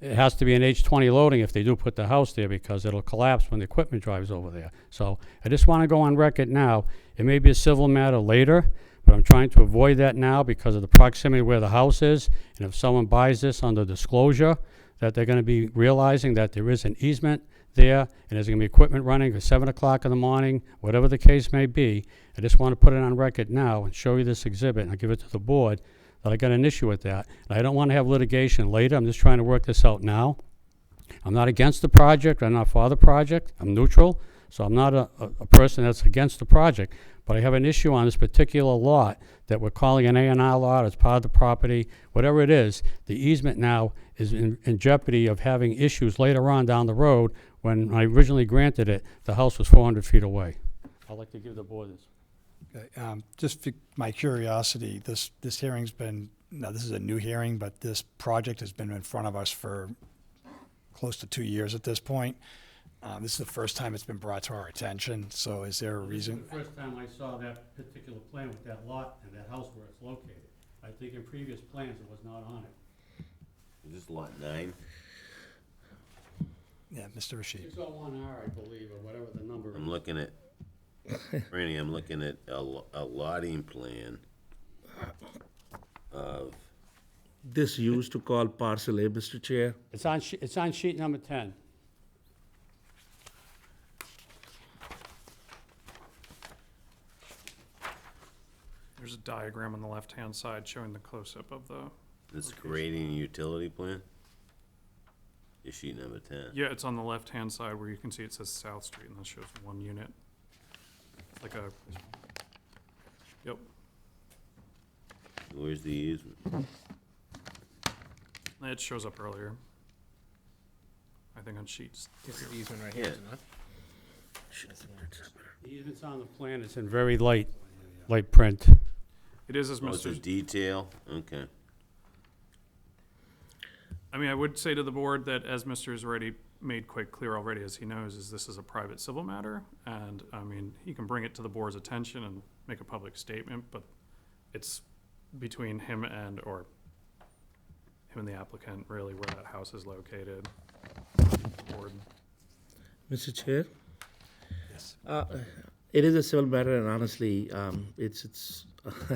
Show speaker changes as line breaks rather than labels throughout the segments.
it has to be an H twenty loading if they do put the house there, because it'll collapse when the equipment drives over there. So I just wanna go on record now, it may be a civil matter later, but I'm trying to avoid that now because of the proximity where the house is, and if someone buys this under disclosure, that they're gonna be realizing that there is an easement there, and there's gonna be equipment running at seven o'clock in the morning, whatever the case may be. I just wanna put it on record now and show you this exhibit, and I'll give it to the board, that I got an issue with that. And I don't want to have litigation later, I'm just trying to work this out now. I'm not against the project, I'm not for the project, I'm neutral, so I'm not a, a, a person that's against the project. But I have an issue on this particular lot that we're calling an A and R lot, it's part of the property, whatever it is, the easement now is in, in jeopardy of having issues later on down the road. When I originally granted it, the house was four hundred feet away. I'd like to give the board this.
Okay, um, Just for my curiosity, this, this hearing's been, now, this is a new hearing, but this project has been in front of us for close to two years at this point. Uh, This is the first time it's been brought to our attention, so is there a reason?
The first time I saw that particular plan with that lot and that house where it's located, I think in previous plans it was not on it.
Is this lot nine?
Yeah, Mr. Rashid.
Six oh one R, I believe, or whatever the number
I'm
is.
looking at, Franny, I'm looking at a lo- a lotting plan of,
This used to call parcel A, Mr. Chair.
It's on, she- it's on sheet number ten.
There's a diagram on the left-hand side showing the close-up of the,
this creating a utility plan? Is sheet number ten?
yeah, it's on the left-hand side where you can see it says South Street, and that shows one unit. It's Like a, yep,
Where's the easement?
it shows up earlier. I think on sheets.
This is the easement right
Yeah. Oh,
here, is it not?
Even it's on the plan, it's in very light, light print.
It is as
Oh, it's a
Mr.,
detail, okay.
I mean, I would say to the board that as Mr. has already made quite clear already, as he knows, is this is a private civil matter, and, I mean, he can bring it to the board's attention and make a public statement, but it's between him and, or him and the applicant, really, where that house is located. Board.
Mr. Chair?
Yes.
Uh, It is a civil matter, and honestly, um, it's, it's,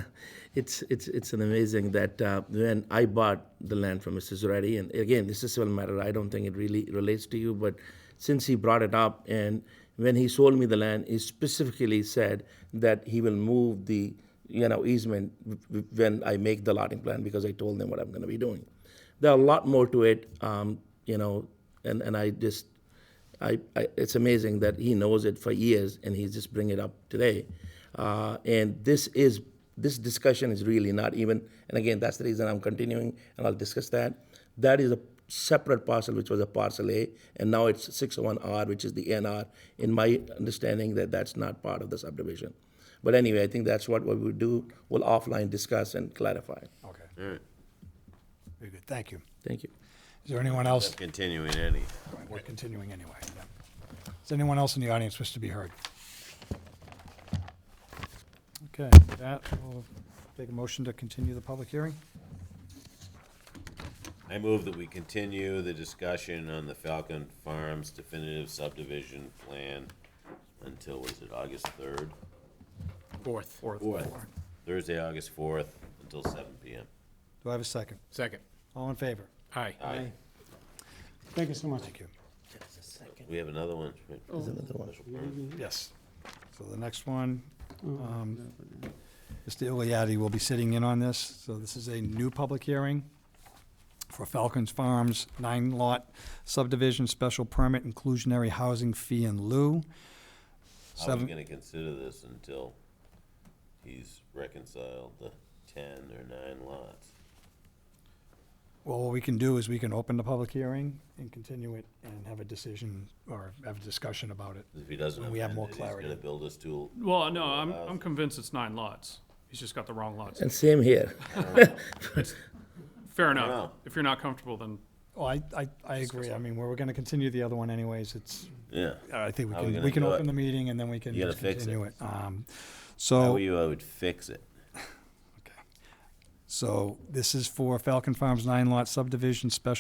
it's, it's, it's an amazing that uh, when I bought the land from Mr. Zurati, and again, this is a civil matter, I don't think it really relates to you, but since he brought it up, and when he sold me the land, he specifically said that he will move the, you know, easement w- w- when I make the lotting plan, because I told them what I'm gonna be doing. There are a lot more to it, um, you know, and, and I just, I, I, it's amazing that he knows it for years and he's just bringing it up today. Uh, and this is this discussion is really not even. And again, that's the reason I'm continuing, and I'll discuss that. That is a separate parcel, which was a parcel A, and now it's 601R, which is the NR. In my understanding, that that's not part of the subdivision. But anyway, I think that's what we would do. We'll offline discuss and clarify.
Okay,
All right,
very good, thank you.
Thank you.
Is there anyone else?
continuing any.
We're continuing anyway. yeah. Is anyone else in the audience wish to be heard? Okay, with that, we'll take a motion to continue the public hearing.
I move that we continue the discussion on the Falcon Farms definitive subdivision plan until, was it August third?
Fourth.
Fourth.
Fourth. Thursday, August fourth, until seven P M.
Do I have a second?
Second.
All in favor?
Aye.
Aye.
Thank you so much. Thank you.
We have another one. right?
another one.
Special permit.
Mm-hmm.
Yes. So the next one, um, Mr. Iliadi will be sitting in on this. So this is a new public hearing for Falcons Farms nine lot subdivision special permit inclusionary housing fee in lieu.
I was
Seven,
gonna consider this until he's reconciled the ten or nine lots.
well, what we can do is we can open the public hearing and continue it and have a decision or have a discussion about it.
If he doesn't
When we have
amend
more
it,
clarity.
He's gonna build us two,
Well, no, I'm, I'm convinced it's nine lots. He's just got the wrong lots.
And same here.
Fair
know.
enough. If you're not comfortable, then
Well, I, I, I agree. I mean, we're going to continue the other one anyways. It's,
yeah.
I think we
How are we
can,
gonna
we can
do it?
open the meeting and then we can
You gotta
just
fix it.
continue it. Um,
How
So,
are you, I would fix it.
so this is for Falcon Farms nine lot subdivision special